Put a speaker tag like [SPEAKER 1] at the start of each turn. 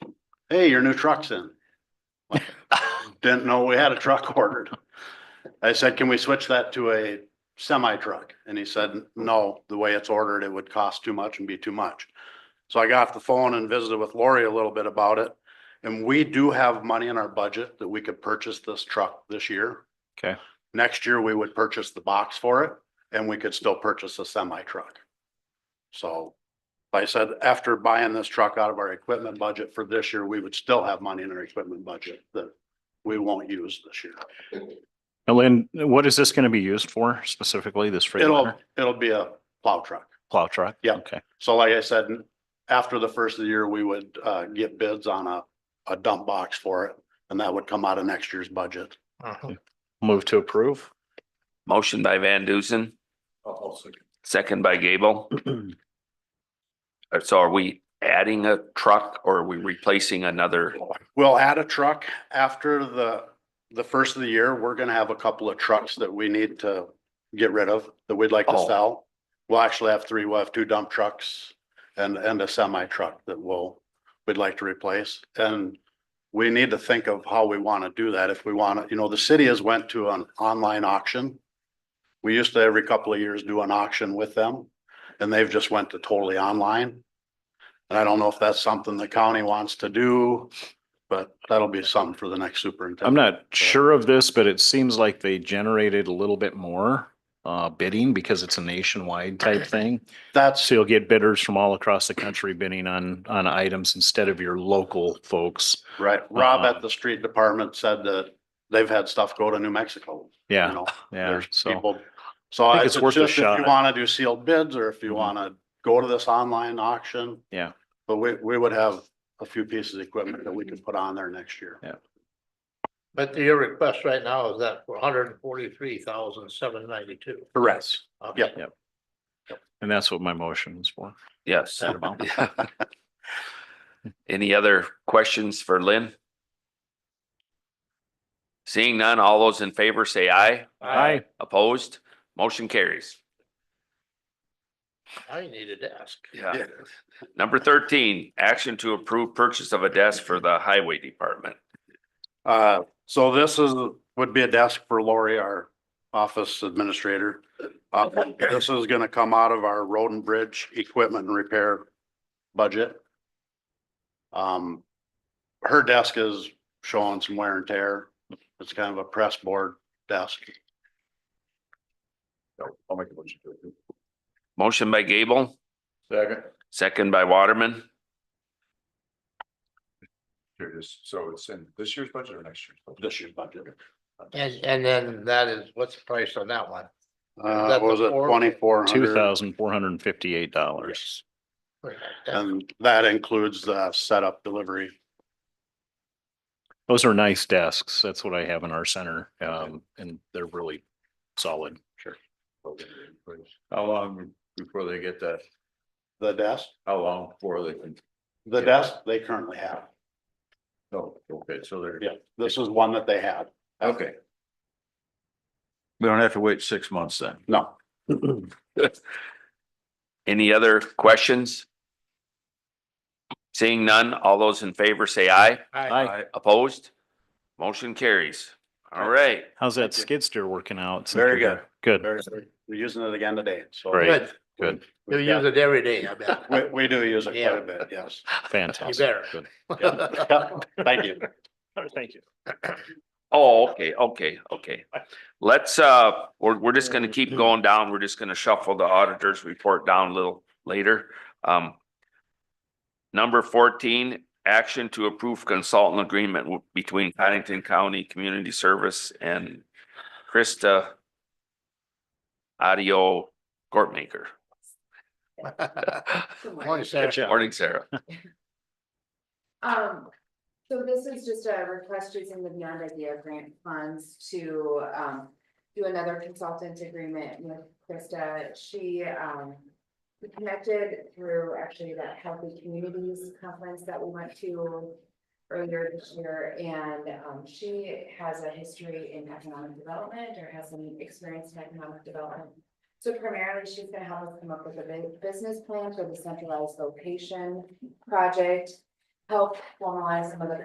[SPEAKER 1] hey, your new truck's in. Like, Didn't know we had a truck ordered. I said, can we switch that to a semi truck? And he said, no, the way it's ordered, it would cost too much and be too much. So I got off the phone and visited with Lori a little bit about it. And we do have money in our budget that we could purchase this truck this year.
[SPEAKER 2] Okay.
[SPEAKER 1] Next year, we would purchase the box for it and we could still purchase a semi truck. So like I said, after buying this truck out of our equipment budget for this year, we would still have money in our equipment budget that we won't use this year.
[SPEAKER 2] Now, Lynn, what is this going to be used for specifically, this
[SPEAKER 1] It'll,
[SPEAKER 2] Freightliner
[SPEAKER 1] it'll be a plow truck.
[SPEAKER 2] plow truck?
[SPEAKER 1] Yeah.
[SPEAKER 2] Okay.
[SPEAKER 1] So like I said, after the first of the year, we would uh get bids on a, a dump box for it. And that would come out of next year's budget.
[SPEAKER 2] Move to approve.
[SPEAKER 3] Motion by Van Dusen, second by Gable. Uh, So are we adding a truck or are we replacing another?
[SPEAKER 1] We'll add a truck after the, the first of the year. We're gonna have a couple of trucks that we need to get rid of that we'd like to
[SPEAKER 3] Oh.
[SPEAKER 1] sell. We'll actually have three, we'll have two dump trucks and, and a semi truck that we'll, we'd like to replace. And we need to think of how we want to do that. If we want to, you know, the city has went to an online auction. We used to every couple of years do an auction with them and they've just went to totally online. And I don't know if that's something the county wants to do, but that'll be something for the next superintendent.
[SPEAKER 2] I'm not sure of this, but it seems like they generated a little bit more uh, bidding because it's a nationwide type thing.
[SPEAKER 1] That's
[SPEAKER 2] So you'll get bidders from all across the country bidding on, on items instead of your local folks.
[SPEAKER 1] Right, Rob
[SPEAKER 2] Uh-uh.
[SPEAKER 1] at the street department said that they've had stuff go to New Mexico, you
[SPEAKER 2] Yeah,
[SPEAKER 1] know,
[SPEAKER 2] yeah.
[SPEAKER 1] there's
[SPEAKER 2] So
[SPEAKER 1] people. So I-
[SPEAKER 2] think
[SPEAKER 1] it's
[SPEAKER 2] it's worth a
[SPEAKER 1] just if you
[SPEAKER 2] shot.
[SPEAKER 1] wanna do sealed bids or if you
[SPEAKER 2] Mhm.
[SPEAKER 1] wanna go to this online auction.
[SPEAKER 2] Yeah.
[SPEAKER 1] But we, we would have a few pieces of equipment that we could put on there next year.
[SPEAKER 2] Yeah.
[SPEAKER 4] But your request right now is that for hundred and forty-three thousand, seven ninety-two.
[SPEAKER 1] Correct. Yep.
[SPEAKER 2] and that's what my motion is for.
[SPEAKER 3] Yes.
[SPEAKER 2] That amount.
[SPEAKER 3] Any other questions for Lynn? Seeing none, all those in favor say aye.
[SPEAKER 2] Aye.
[SPEAKER 3] Opposed? Motion carries.
[SPEAKER 4] I needed to ask.
[SPEAKER 3] Yeah. Number thirteen, action to approve purchase of a desk for the highway department.
[SPEAKER 1] Uh, so this is, would be a desk for Lori, our office administrator. Uh, this is gonna come out of our road and bridge equipment and repair budget. Um, her desk is showing some wear and tear. It's kind of a press board desk. I'll make a motion to it.
[SPEAKER 3] Motion by Gable,
[SPEAKER 5] Second.
[SPEAKER 3] second by Waterman.
[SPEAKER 5] Here it is. So it's in this year's budget or next year's? budget?
[SPEAKER 1] This year's budget.
[SPEAKER 4] And, and then that is, what's the price on that one?
[SPEAKER 1] Uh,
[SPEAKER 4] that
[SPEAKER 1] what was
[SPEAKER 4] the
[SPEAKER 1] it
[SPEAKER 4] four?
[SPEAKER 1] twenty-four hundred?
[SPEAKER 2] Two thousand four hundred and fifty-eight dollars.
[SPEAKER 1] And that includes the setup, delivery,
[SPEAKER 2] Those are nice desks. That's what I have in our center. Um, and they're really solid.
[SPEAKER 5] How long before they get that?
[SPEAKER 1] the desk.
[SPEAKER 5] How long before they can?
[SPEAKER 1] The
[SPEAKER 5] Yeah.
[SPEAKER 1] desk they currently have,
[SPEAKER 5] Oh, okay, so they're.
[SPEAKER 1] yeah, this is one that they had,
[SPEAKER 5] Okay. We don't have to wait six months then.
[SPEAKER 1] no.
[SPEAKER 3] Any other questions? Seeing none, all those in favor say aye.
[SPEAKER 2] Aye.
[SPEAKER 3] Opposed? Motion carries. All right.
[SPEAKER 2] How's that
[SPEAKER 1] Thank you.
[SPEAKER 2] skid steer working out? since
[SPEAKER 1] Very
[SPEAKER 2] you're Good.
[SPEAKER 1] Very- We're using it again today, so.
[SPEAKER 2] Great.
[SPEAKER 4] Good,
[SPEAKER 2] Good.
[SPEAKER 4] you use it every day, I
[SPEAKER 1] We,
[SPEAKER 4] bet.
[SPEAKER 1] we do use it quite
[SPEAKER 4] Yeah.
[SPEAKER 1] a bit, yes.
[SPEAKER 2] Fantastic.
[SPEAKER 4] better.
[SPEAKER 2] Good.
[SPEAKER 1] Yeah. Thank you.
[SPEAKER 2] Thank you.
[SPEAKER 3] Oh, okay, okay, okay. Let's, uh, we're, we're just gonna keep going down. We're just gonna shuffle the auditor's report down a little later. Um. Number fourteen, action to approve consultant agreement w- between Paddington County Community Service and Krista Audio Courtmaker.
[SPEAKER 4] Morning, Sarah.
[SPEAKER 3] Morning, Sarah.
[SPEAKER 6] Um, so this is just a request using the Beyond Idea grant funds to, um, do another consultant agreement with Krista. She, um, we connected through actually that Healthy Communities Conference that we went to earlier this year, and, um, she has a history in economic development or has some experience in economic development. So primarily, she's gonna help us come up with a bu- business plan for the centralized location project. help formalize some of the